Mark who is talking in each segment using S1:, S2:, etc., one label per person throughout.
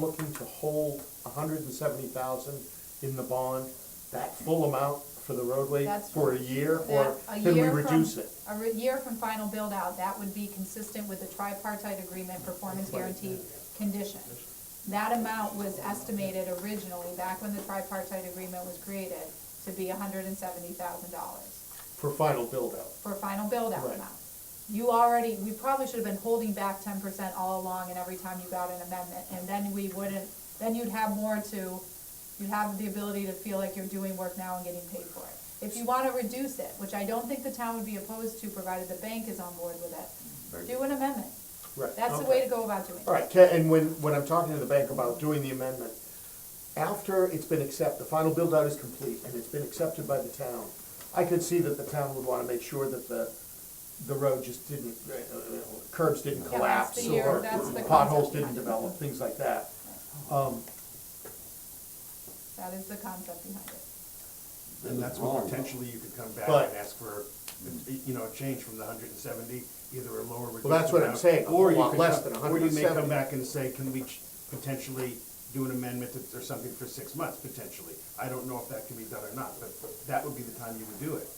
S1: looking to hold a hundred and seventy thousand in the bond, that full amount for the roadway
S2: That's-
S1: for a year, or
S2: That, a
S1: can we
S2: year from-
S1: reduce it?
S2: A re- year from final build out, that would be consistent with the tripartite agreement performance guarantee condition. That amount was estimated originally, back when the tripartite agreement was created, to be hundred and seventy thousand dollars
S1: For final build-out,
S2: for final build out
S1: Right.
S2: amount. You already, we probably should have been holding back ten percent all along and every time you got an amendment, and then we wouldn't, then you'd have more to, you'd have the ability to feel like you're doing work now and getting paid for it. If you wanna reduce it, which I don't think the town would be opposed to, provided the bank is on board with it, do an amendment.
S1: right.
S2: That's the
S1: okay.
S2: way to go about doing
S1: All
S2: it.
S1: right, Ca- and when, when I'm talking to the bank about doing the amendment, after it's been accepted, the final build-out is complete and it's been accepted by the town, I could see that the town would wanna make sure that the, the road just didn't, uh, uh, curbs didn't
S2: Yeah, that's
S1: collapse
S2: the year-
S1: or
S2: that's the
S1: potholes
S2: concept
S1: didn't
S2: behind it.
S1: develop, things like that. Um,
S2: That is the concept behind it.
S3: And that's when potentially you could come back
S1: But-
S3: and ask for, you know, a change from the hundred and seventy, either a lower. reduced
S1: that's what I'm
S3: amount,
S1: saying, a
S3: or you
S1: lot
S3: could
S1: less
S3: come-
S1: than
S3: Or you may
S1: 170.
S3: come back and say, can we ch- potentially do an amendment to- or something for six months, potentially? I don't know if that can be done or not, but that would be the time you would do it.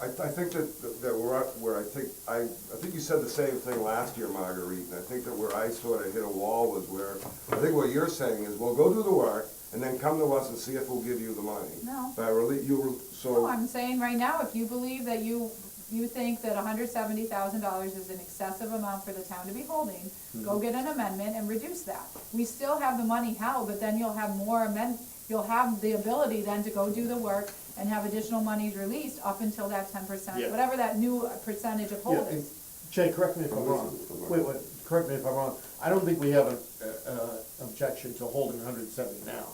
S4: I, I think that, that we're at where I think, I, I think you said the same thing last year, Marguerite, and I think that where I sort of hit a wall was where, I think what you're saying is, well, go do the work, and then come to us and see if we'll give you the money.
S2: No.
S4: By really, you were, so.
S2: No, I'm saying right now, if you believe that you, you think that hundred seventy thousand dollars is an excessive amount for the town to be holding,
S1: Mm-hmm.
S2: go get an amendment and reduce that. We still have the money held, but then you'll have more amend, you'll have the ability then to go do the work and have additional monies released up until that ten percent,
S1: Yeah.
S2: whatever that new percentage of
S1: Yeah,
S2: hold
S1: and
S2: is.
S1: Jay, correct me if I'm wrong, wait, wait, correct me if I'm wrong, I don't think we have an, uh, uh, objection to holding hundred and seventy now.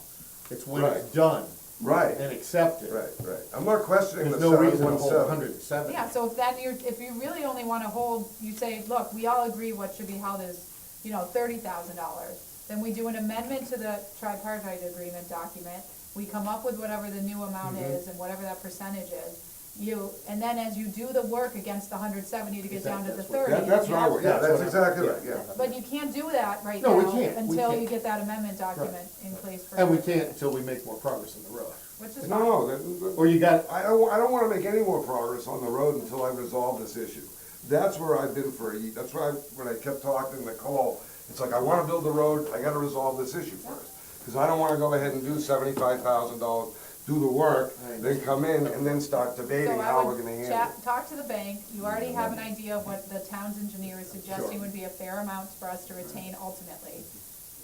S1: It's when it's
S4: Right.
S1: done
S4: Right,
S1: and accepted.
S4: right, right. I'm not questioning the
S1: There's
S4: seven
S1: no
S4: one seven.
S1: reason to hold hundred and seventy.
S2: Yeah, so if that, you're, if you really only wanna hold, you say, look, we all agree what should be held is, you know, thirty thousand dollars, then we do an amendment to the tripartite agreement document, we come up with whatever the new amount
S4: Mm-hmm.
S2: is and whatever that percentage is, you, and then as you do the work against the hundred seventy to get down to the
S1: Exactly,
S2: thirty.
S4: That, that's
S2: you
S4: what I,
S2: have-
S4: would- yeah,
S1: That's what
S4: that's
S1: I-
S4: exactly
S1: yeah.
S4: right, yeah.
S2: But you can't do that right now
S1: No, we can't, we
S2: until you
S1: can't.
S2: get that amendment document in place for.
S1: And we can't until we make more progress on the road.
S2: Which is
S4: No,
S2: fine.
S4: no, that-
S1: Or you got,
S4: I don't, I don't wanna make any more progress on the road until I resolve this issue. That's where I've been for a year, that's why, I- when I kept talking to Nicole, it's like, I wanna build the road, I gotta resolve this issue first. Cause I don't wanna go ahead and do seventy-five thousand dollars, do the work, then come in and then start debating
S2: So
S4: how
S2: I
S4: we're
S2: would
S4: gonna handle it.
S2: chat, talk to the bank, you already
S5: Mm-hmm.
S2: have an idea of what the town's engineer is suggesting would be a fair amount for us to retain ultimately.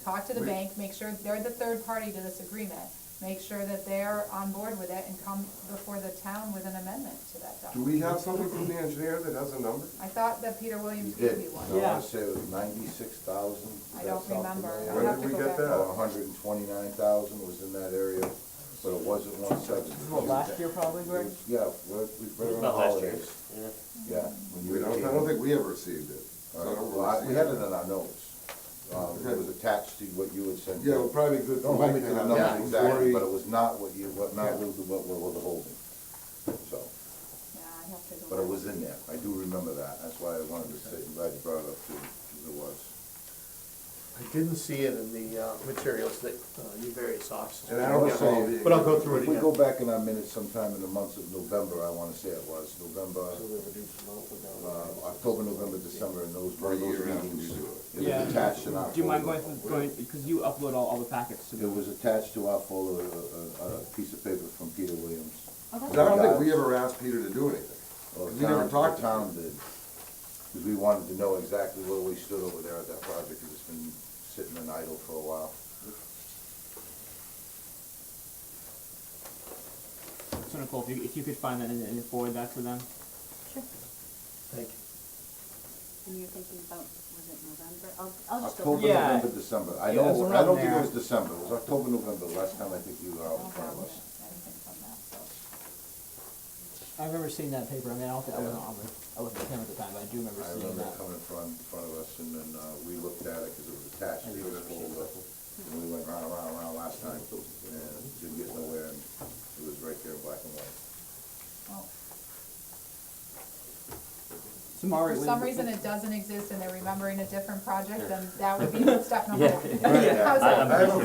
S2: Talk to the bank, make sure, they're the third party to this agreement, make sure that they're on board with it and come before the town with an amendment to that
S4: Do
S2: document.
S4: we have something from the engineer that has a number?
S2: I thought that Peter Williams
S5: You
S2: gave you
S5: did,
S2: one.
S5: so I wanna say it was ninety-six thousand.
S2: I don't remember. I'll
S4: When
S2: have
S4: did
S2: to go
S4: we get
S2: back.
S4: that?
S5: hundred and twenty-nine thousand was in that area, but it wasn't one seventy.
S6: Well, last year probably, Greg?
S5: Yeah, we're, we've been on holidays. Yeah. when you
S4: We
S5: were
S4: don't,
S5: here.
S4: I don't think we ever received it. So I
S5: All right,
S4: don't
S5: well, I-
S4: really
S5: we
S4: see
S5: had it in our notes. Um,
S4: Okay.
S5: it was attached to what you had sent.
S4: Yeah, well, probably good.
S5: Don't hold me to the
S4: Yeah,
S5: number exactly,
S4: forty.
S5: but it was not what you, what, not what we what we were holding. So,
S2: Yeah, I have to go.
S5: but it
S2: back.
S5: was in there. I do remember that. That's why I wanted to say, I'm glad you brought it up too, 'cause it was.
S1: I didn't see it in the uh, materials that uh, you various officers.
S4: And I don't
S5: Also,
S4: know.
S1: But I'll go through it
S5: If we
S1: again.
S5: go back in our minutes sometime in the months of November, I wanna say it was, November, uh, October, November, December, and those,
S4: Or a
S5: those
S4: year after we
S5: meetings.
S4: do
S5: It was attached in our.
S6: Do you mind going,
S5: folder.
S6: through- going, because you upload all, all the packets to me.
S5: It was attached to our folder, a, a, a piece of paper from Peter Williams.
S4: Oh, I don't think we ever asked Peter to do anything.
S5: Well, the
S4: We never
S5: town-
S4: talked
S5: the
S4: to
S5: Town did, because we wanted to know exactly where we stood over there at that project, because it's been sitting and idle for a while.
S6: So Nicole, if you, if you could find that and, and forward that to them.
S1: Thank you.
S7: And you're thinking about, was it November? I'll, I'll just go.
S5: October,
S6: Yeah.
S5: November, December, I
S6: Yeah,
S5: know,
S6: it's
S5: I
S6: around
S5: don't think it
S6: there.
S5: was December, it was October, November, last time I think you were
S2: I
S5: out in
S2: don't
S5: front
S2: have
S5: of us.
S2: anything from that, so.
S6: I remember seeing that paper, I mean, I don't think, I wasn't on, the- I wasn't with him at the time, but I do remember
S5: I
S6: seeing
S5: remember
S6: that.
S5: coming in front, in front of us, and then, uh, we looked at it, cause it was attached to this folder, and we went round, round, round last time, and didn't get nowhere, and it
S2: oh.
S5: was right there, in black and white.
S2: well, for some reason it doesn't exist and they're remembering a different project, then that would be step number one.
S5: Right.
S2: How's that?
S5: I have a